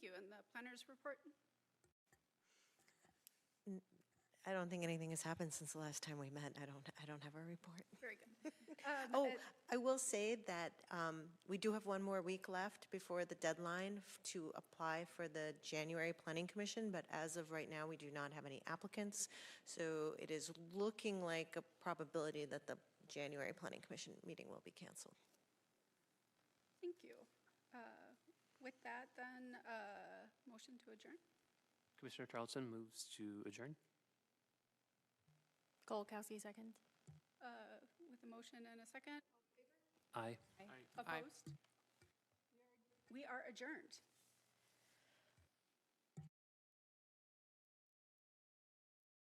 Commissioners' report? I don't think anything has happened since the last time we met. I don't, I don't have a report. Very good. Um, Oh, uh, I will say that um, we do have one more week left before the deadline f- to apply for the January Planning Commission, but as of right now, we do not have any applicants. So it is looking like a probability that the January Planning Commission meeting will be canceled. Thank you. Uh, With that, then, uh, motion to adjourn? Commissioner Charlton moves to adjourn. Golakowski, second. Uh, With a motion and a second? Aye. Opposed? We are adjourned.